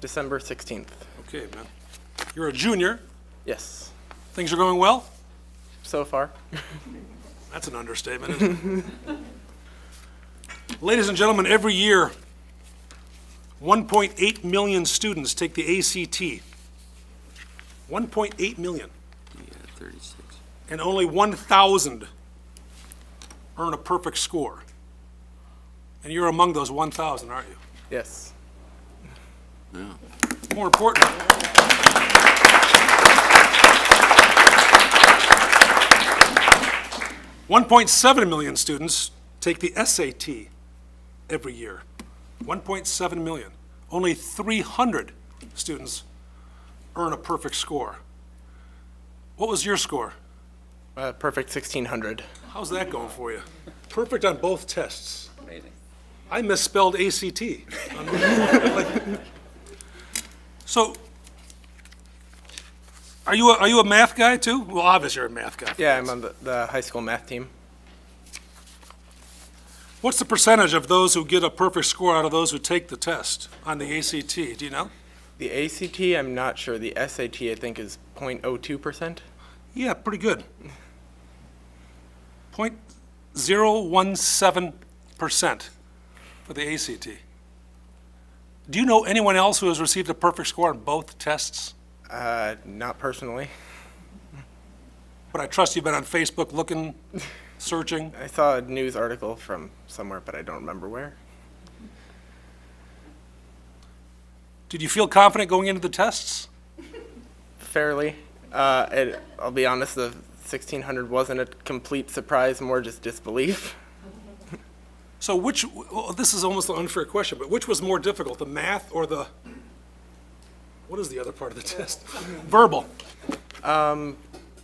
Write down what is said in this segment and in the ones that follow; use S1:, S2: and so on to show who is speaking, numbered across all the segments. S1: December 16th.
S2: Okay, man. You're a junior.
S1: Yes,
S2: Things are going well?
S1: so far.
S2: That's an understatement, isn't it? Ladies and gentlemen, every year, 1.8 million students take the ACT. 1.8 million,
S3: Yeah, 36.
S2: and only 1,000 earn a perfect score. And you're among those 1,000, aren't you?
S1: Yes.
S3: No.
S2: More important. One point seven million students take the SAT every year. One point seven million. Only three hundred students earn a perfect score. What was your score?
S1: Uh, perfect 1600.
S2: How's that going for you? Perfect on both tests. Amazing. I misspelled ACT. Unbelievable. So, are you, a- are you a math guy too? Well, obviously you're a math guy.
S1: Yeah, I'm on the, the high school math team.
S2: What's the percentage of those who get a perfect score out of those who take the test on the ACT? Do you know?
S1: The ACT, I'm not sure. The SAT, I think, is 0.02%.
S2: Yeah, pretty good. Point zero one seven percent for the ACT. Do you know anyone else who has received a perfect score on both tests?
S1: Uh, not personally.
S2: But I trust you've been on Facebook looking, searching.
S1: I saw a news article from somewhere, but I don't remember where.
S2: Did you feel confident going into the tests?
S1: Fairly. Uh, it, I'll be honest, the 1600 wasn't a complete surprise, more just disbelief.
S2: So which, well, this is almost an unfair question, but which was more difficult, the math or the, what is the other part of the test? Verbal.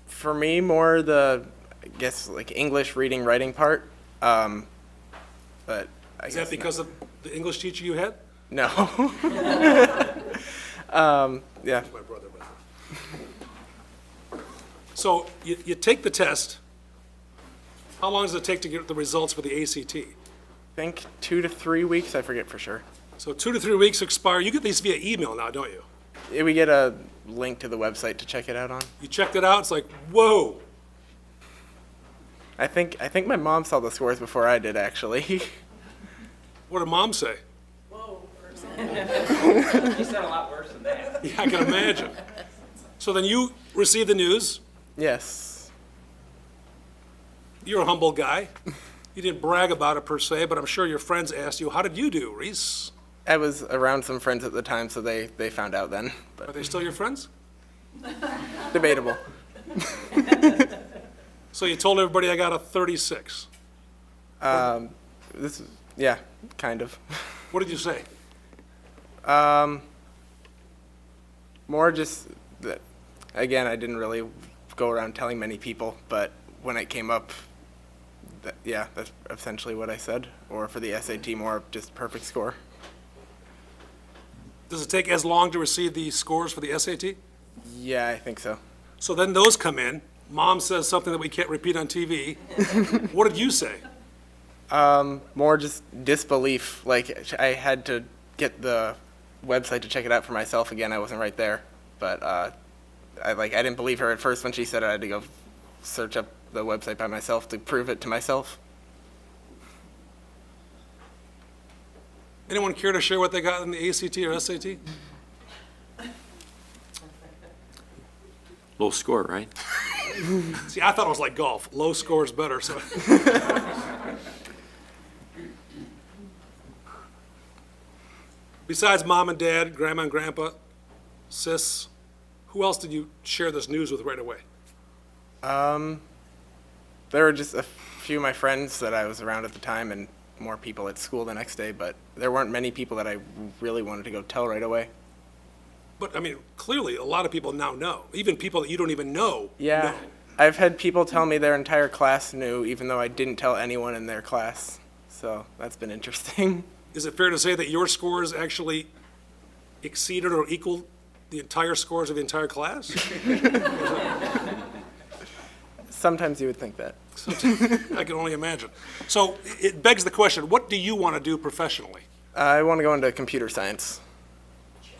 S1: For me, more the, I guess, like English reading, writing part. Um, but I
S2: Is
S1: guess
S2: that because of the English teacher you had?
S1: No. um, yeah,
S2: my brother, by the way. So you, you take the test. How long does it take to get the results for the ACT?
S1: I think two to three weeks. I forget for sure.
S2: So two to three weeks expire. You get these via email now, don't you?
S1: Eh, We get a link to the website to check it out on.
S2: You checked it out, it's like, whoa,
S1: I think I think my mom saw the scores before I did actually.
S2: what did mom say?
S4: You said a lot worse than that.
S2: Yeah, I can imagine. So then you receive the news.
S1: yes.
S2: You're a humble guy. You didn't brag about it per se, but I'm sure your friends asked you, how did you do, Reese?
S1: I was around some friends at the time, so they, they found out then.
S2: Are
S1: But
S2: they still your friends?
S1: debatable.
S2: So you told everybody I got a 36.
S1: This, yeah, kind of.
S2: What did you say?
S1: More just that. Again, I didn't really go around telling many people, but when it came up, that, yeah, that's essentially what I said. Or for the SAT, more of just perfect score.
S2: Does it take as long to receive the scores for the SAT?
S1: Yeah, I think so.
S2: So then those come in. Mom says something that we can't repeat on TV. What did you say?
S1: more just disbelief. Like I had to get the website to check it out for myself again. I wasn't right there, but uh, I like I didn't believe her at first when she said it. I had to go search up the website by myself to prove it to myself.
S2: Anyone care to share what they got in the ACT or SAT?
S3: Low score, right?
S2: See, I thought it was like golf. Low score is better, so. Besides mom and dad, grandma and grandpa, sis, who else did you share this news with right away?
S1: There were just a few of my friends that I was around at the time, and more people at school the next day. But there weren't many people that I really wanted to go tell right away.
S2: But, I mean, clearly, a lot of people now know, even people that you don't even know.
S1: Yeah,
S2: know.
S1: I've had people tell me their entire class knew, even though I didn't tell anyone in their class. So that's been interesting.
S2: Is it fair to say that your scores actually exceeded or equaled the entire scores of the entire class?
S1: Sometimes you would think that.
S2: I can only imagine. So it begs the question, what do you want to do professionally?
S1: I want to go into computer science.